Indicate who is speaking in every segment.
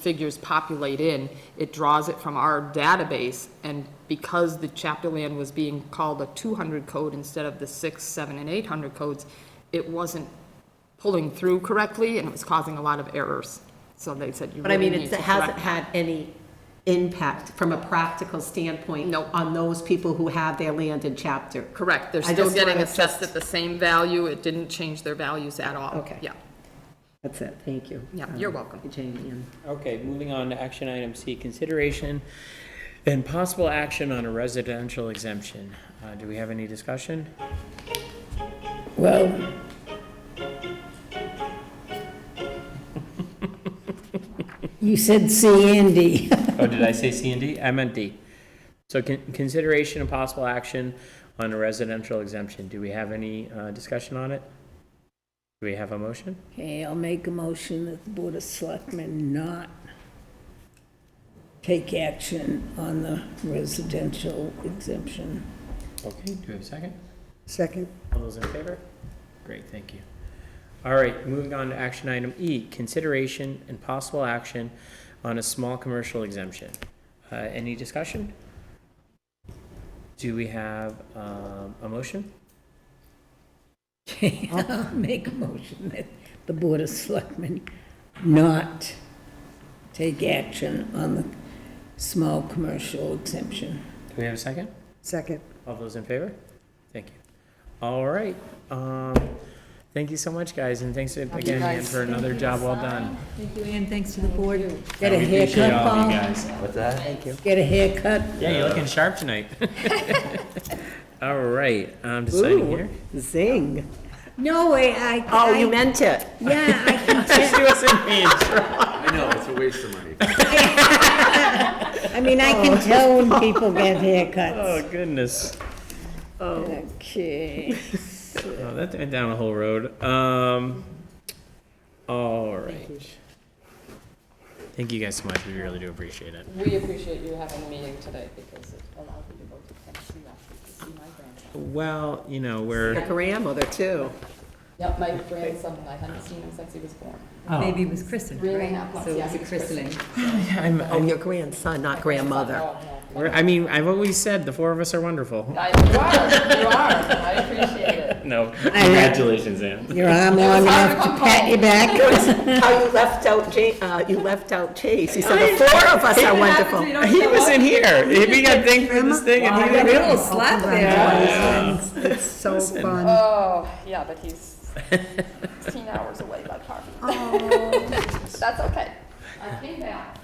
Speaker 1: figures populate in, it draws it from our database, and because the chapter land was being called a two hundred code instead of the six, seven, and eight hundred codes, it wasn't pulling through correctly, and it was causing a lot of errors. So they said you
Speaker 2: But I
Speaker 1: really
Speaker 2: mean,
Speaker 1: need
Speaker 2: it's-
Speaker 1: to
Speaker 2: it hasn't
Speaker 1: correct
Speaker 2: had any impact from a practical standpoint
Speaker 1: No.
Speaker 2: on those people who have their land in chapter.
Speaker 1: Correct, they're
Speaker 2: I
Speaker 1: still
Speaker 2: just
Speaker 1: getting
Speaker 2: wanna
Speaker 1: assessed at the same value, it didn't change their values at all.
Speaker 2: Okay.
Speaker 1: Yeah,
Speaker 2: That's it, thank you.
Speaker 1: Yeah, you're welcome.
Speaker 2: Jamie, and-
Speaker 3: Okay, moving on to action item C, consideration and possible action on a residential exemption. Uh, Do we have any discussion?
Speaker 4: Well, you said C and D.
Speaker 3: Oh, did I say C and D? I meant D. So con- consideration and possible action on a residential exemption. Do we have any uh, discussion on it? Do we have a motion?
Speaker 4: Okay, I'll make a motion that the Board of Selectmen not take action on the residential exemption.
Speaker 3: Okay, do we have a second?
Speaker 4: Second.
Speaker 3: All those in favor? Great, thank you. All right, moving on to action item E, consideration and possible action on a small commercial exemption. Uh, Any discussion? Do we have um, a motion?
Speaker 4: Okay, I'll make a motion that the Board of Selectmen not take action on the small commercial exemption.
Speaker 3: Do we have a second?
Speaker 4: Second.
Speaker 3: All those in favor? Thank you. All right, um, thank you so much, guys, and thanks again Ann, for another job well done.
Speaker 5: Thank you, Ann, thanks to the board.
Speaker 4: Get a
Speaker 3: We appreciate
Speaker 4: haircut,
Speaker 3: all of you
Speaker 4: Paul?
Speaker 3: guys.
Speaker 4: Get a haircut?
Speaker 3: Yeah, you're looking sharp tonight. All right, I'm deciding here.
Speaker 2: Zing.
Speaker 4: No way, I,
Speaker 2: Oh, you
Speaker 4: I,
Speaker 2: meant it.
Speaker 4: yeah, I can tell,
Speaker 3: She wasn't being
Speaker 6: I know, it's a waste of money.
Speaker 4: I mean, I can tell
Speaker 2: Oh.
Speaker 4: when people get haircuts.
Speaker 3: Oh goodness,
Speaker 4: Okay,
Speaker 3: oh, that went down a whole road. Um, all right. Thank you guys so much. We really do appreciate it.
Speaker 1: We appreciate you having a meeting today, because it allowed me to go to Tennessee to see my grandson.
Speaker 3: Well, you know
Speaker 2: The
Speaker 3: we're
Speaker 2: grandmother, too.
Speaker 1: Yep, my grandson, I hadn't seen him since he was born.
Speaker 5: Baby was christened,
Speaker 1: Three and a
Speaker 5: right?
Speaker 1: half months,
Speaker 5: So it
Speaker 1: yeah,
Speaker 5: was
Speaker 1: he
Speaker 5: a
Speaker 1: was
Speaker 5: christening.
Speaker 3: I'm,
Speaker 2: Oh,
Speaker 3: I'm
Speaker 2: your grandson, not grandmother.
Speaker 1: Oh, no.
Speaker 3: we're, I mean I've always said the four of us are wonderful.
Speaker 1: I- You are, you are, I appreciate it.
Speaker 3: No, congratulations, Ann.
Speaker 4: your arm long enough to pat your back?
Speaker 2: How you left out Ja, uh, you left out Chase. He said, the four of us are wonderful.
Speaker 3: He was in here. We got thanked for this thing, and he didn't
Speaker 5: A little slap there.
Speaker 7: It's so fun.
Speaker 1: Oh, yeah, but he's 16 hours away by car. That's okay. Oh. I came back,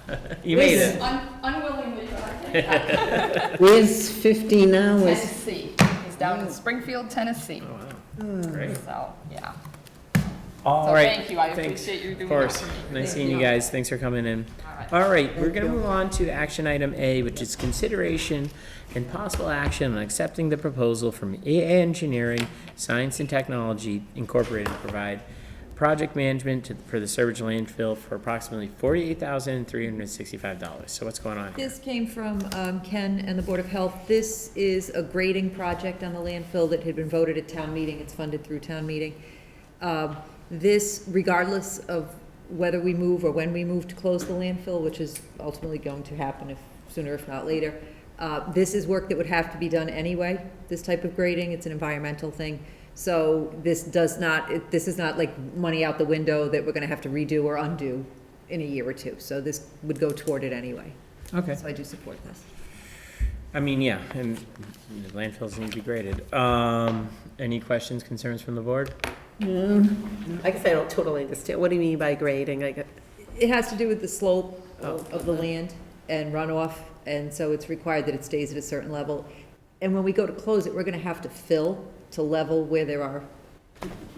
Speaker 3: You made it.
Speaker 1: un- unwillingly, but I came back.
Speaker 4: Where's fifteen hours?
Speaker 1: Tennessee, he's down in Springfield, Tennessee,
Speaker 3: Great.
Speaker 1: so, yeah.
Speaker 3: All
Speaker 1: So
Speaker 3: right.
Speaker 1: thank you. I
Speaker 3: Thanks.
Speaker 1: appreciate you doing
Speaker 3: Of
Speaker 1: that
Speaker 3: course.
Speaker 1: for me.
Speaker 3: Nice
Speaker 1: Thank
Speaker 3: seeing
Speaker 1: you.
Speaker 3: you guys. Thanks for coming in.
Speaker 1: All right.
Speaker 3: All right, we're going to move on to action item A, which is consideration and possible action on accepting the proposal from AA Engineering, Science and Technology Incorporated to provide project management to- for the Sturbridge landfill for approximately $48,365. So what's going on? here?
Speaker 5: This came from um, Ken and the Board of Health. This is a grading project on the landfill that had been voted at town meeting. It's funded through town meeting. Um, This, regardless of whether we move or when we move to close the landfill, which is ultimately going to happen if, sooner if not later, uh, this is work that would have to be done anyway, this type of grading. It's an environmental thing. So this does not, it- this is not like money out the window that we're going to have to redo or undo in a year or two. So this would go toward it anyway.
Speaker 3: Okay.
Speaker 5: So I do support this.
Speaker 3: I mean, yeah, and the landfills need to be graded. Um, Any questions, concerns from the board?
Speaker 2: I guess I don't totally understand. What do you mean by grading? I get,
Speaker 5: It has to do with the slope
Speaker 2: Oh.
Speaker 5: of the land and runoff, and so it's required that it stays at a certain level. And when we go to close it, we're gonna have to fill to level where there are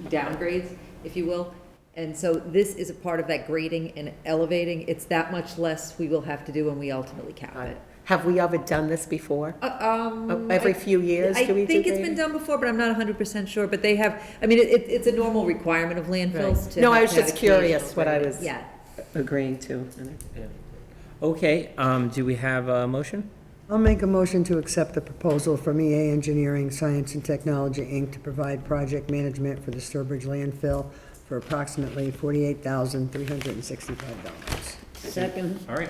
Speaker 5: downgrades, if you will. And so this is a part of that grading and elevating. It's that much less we will have to do when we ultimately cap it.
Speaker 2: have we ever done this before?
Speaker 5: Uh, Um.
Speaker 2: Oh, Every
Speaker 5: I-
Speaker 2: few years, do we do
Speaker 5: I think it's been
Speaker 2: grading?
Speaker 5: done before, but I'm not hundred percent sure, but they have, I mean, it, it- it's a normal requirement of landfills to.
Speaker 2: No, I
Speaker 5: have
Speaker 2: was
Speaker 5: to have
Speaker 2: just curious
Speaker 5: occasional
Speaker 2: what I
Speaker 5: grading.
Speaker 2: was-
Speaker 5: Yeah.
Speaker 2: Agreeing to.
Speaker 3: Okay, um, do we have a motion?
Speaker 7: I'll make a motion to accept the proposal from EA Engineering, Science and Technology, Inc. to provide project management for the Sturbridge landfill for approximately $48,365.
Speaker 4: Second.
Speaker 3: All right,